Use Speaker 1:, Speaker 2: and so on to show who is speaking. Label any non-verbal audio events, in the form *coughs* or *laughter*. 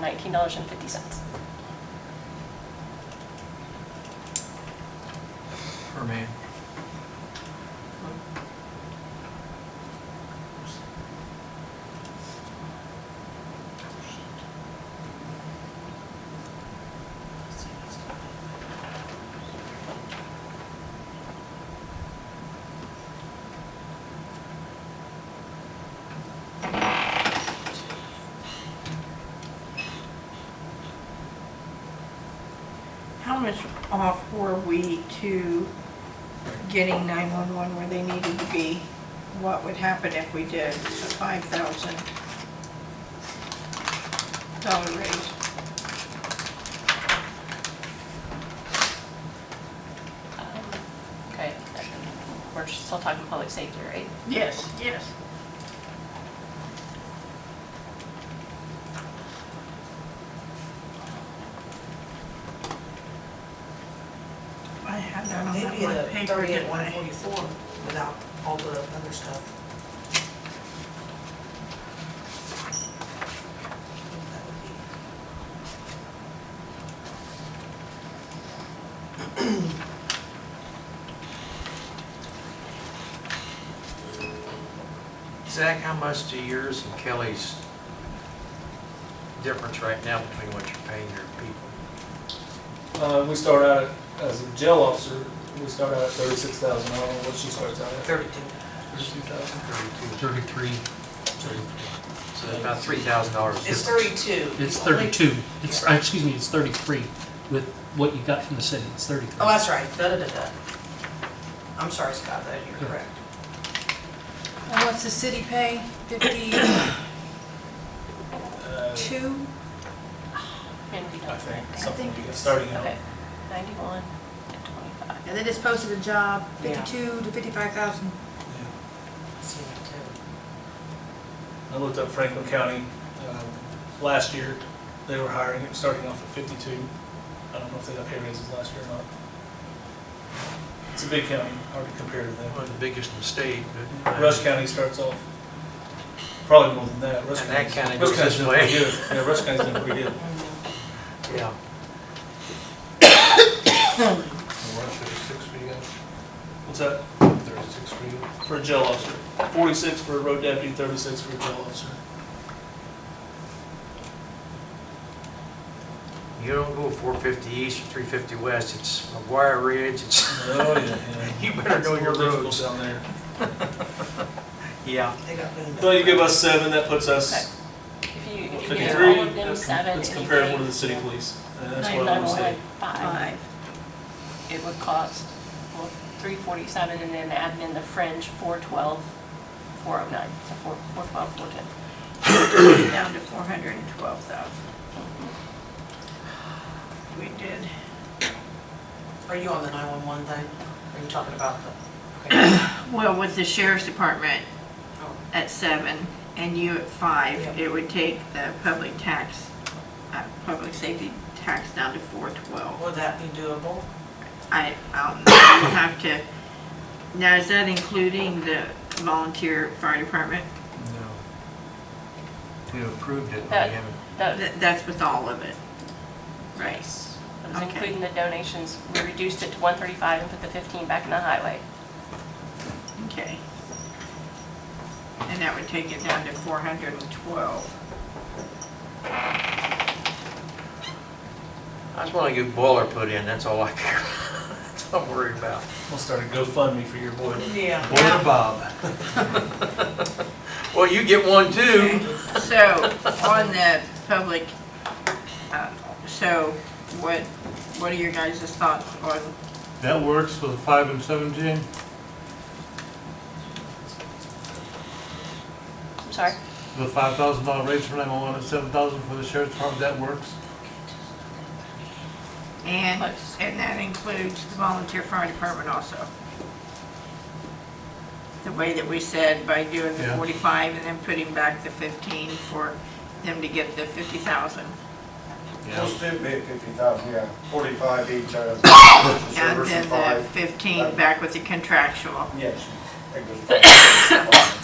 Speaker 1: $8,319.50.
Speaker 2: for me.
Speaker 3: How much off were we to getting 911 where they needed to be? What would happen if we did a $5,000 raise?
Speaker 1: Um, Okay, we're still talking public safety, right?
Speaker 3: Yes, yes. I had that on that
Speaker 4: Maybe
Speaker 3: one
Speaker 4: at
Speaker 3: paper,
Speaker 4: thirty
Speaker 3: didn't
Speaker 4: at one
Speaker 3: I?
Speaker 4: forty-four without all the other stuff. That would be-
Speaker 2: Zach, how much do yours and Kelly's difference right now between what you're paying your people?
Speaker 5: Uh, we start out as a jail officer, we start out at thirty-six thousand, I don't know what she starts out at.
Speaker 4: Thirty-two.
Speaker 5: Thirty-two thousand?
Speaker 2: Thirty-two.
Speaker 6: Thirty-three,
Speaker 2: So it's about three thousand dollars.
Speaker 4: It's thirty-two.
Speaker 6: it's
Speaker 4: Only-
Speaker 6: thirty-two, it's, uh, excuse me, it's thirty-three with what you got from the city, it's thirty-three.
Speaker 4: Oh, that's right, da-da-da-da. I'm sorry, Scott, that you're correct.
Speaker 7: And what's the city pay? Fifty-two?
Speaker 5: Uh, I think,
Speaker 7: I
Speaker 5: something, like
Speaker 7: think
Speaker 5: that,
Speaker 7: it's-
Speaker 5: starting out.
Speaker 1: Okay, 91 and 25.
Speaker 7: And they just posted a job,
Speaker 4: Yeah.
Speaker 7: fifty-two to fifty-five thousand.
Speaker 5: Yeah.
Speaker 4: See that too.
Speaker 5: I looked up Franklin County, um, last year, they were hiring, it was starting off at fifty-two. I don't know if they got pay raises last year or not. It's a big county, hard to compare to
Speaker 2: One
Speaker 5: them.
Speaker 2: of the biggest in the state, but. uh,
Speaker 5: Rush County starts off probably more than that. Rush
Speaker 2: And that
Speaker 5: County's-
Speaker 2: county
Speaker 5: Rush
Speaker 2: goes
Speaker 5: County's
Speaker 2: this
Speaker 5: doing
Speaker 2: way.
Speaker 5: pretty good. Yeah, Rush County's doing pretty good.
Speaker 2: Yeah.
Speaker 5: What's that?
Speaker 8: Thirty-six for you.
Speaker 5: for a jail officer, forty-six for a road deputy, thirty-six for a jail officer.
Speaker 2: You don't go four fifty east or three fifty west, it's McGuire Ridge, it's,
Speaker 5: Oh, yeah,
Speaker 2: *laughs*
Speaker 5: yeah.
Speaker 2: you better know your
Speaker 5: Difficult
Speaker 2: roads.
Speaker 5: Down there.
Speaker 2: Yeah.
Speaker 4: They got moved.
Speaker 5: Well, you give us seven, that puts us
Speaker 1: If you, if you get
Speaker 5: fifty-three.
Speaker 1: all of them,
Speaker 5: That's
Speaker 1: seven,
Speaker 5: that's comparable to the city police. And that's what I would say.
Speaker 1: 9,915,
Speaker 3: Five.
Speaker 1: it would cost well, 347 and then add in the fringe, 412, 409, so 4- 412, 410.
Speaker 3: down to four hundred and twelve thousand. We did.
Speaker 4: Are you on the nine-one-one thing? Are you talking about the? okay.
Speaker 5: *coughs*
Speaker 3: Well, with the sheriff's department
Speaker 4: Oh.
Speaker 3: at seven and you at five,
Speaker 4: Yeah.
Speaker 3: it would take the public tax, uh, public safety tax down to four twelve.
Speaker 4: Would that be doable?
Speaker 3: I, I don't know, you have to, now is that including the volunteer fire department?
Speaker 2: No. We approved it, but
Speaker 1: That-
Speaker 2: we haven't.
Speaker 1: That
Speaker 3: That, that's with all of it, right?
Speaker 1: that was
Speaker 3: Okay.
Speaker 1: including the donations, we reduced it to 135 and put the 15 back in the highway.
Speaker 3: Okay. And that would take it down to four hundred and twelve.
Speaker 2: I just wanna get boiler put in, that's all I care. *laughs* That's all I'm worried about.
Speaker 5: We'll start a GoFundMe for your boy.
Speaker 4: Yeah.
Speaker 2: Boiler Bob. *laughs* Well, you get one too.
Speaker 3: So, on the public, uh, so what, what are your guys' thoughts on,
Speaker 8: That works for the five and seventeen?
Speaker 1: I'm sorry,
Speaker 8: The five thousand dollar raise for nine-one-one and seven thousand for the sheriff's department, that works?
Speaker 3: and,
Speaker 1: Close.
Speaker 3: and that includes the volunteer fire department also? The way that we said by doing the
Speaker 8: Yeah.
Speaker 3: 45 and then putting back the 15 for them to get the 50,000.
Speaker 9: Those two bid fifty thousand, yeah, forty-five each, uh,
Speaker 3: And
Speaker 9: service
Speaker 3: then
Speaker 9: and
Speaker 3: the
Speaker 9: five,
Speaker 3: 15 back with the contractual.
Speaker 9: yes. I think it was five. *coughs*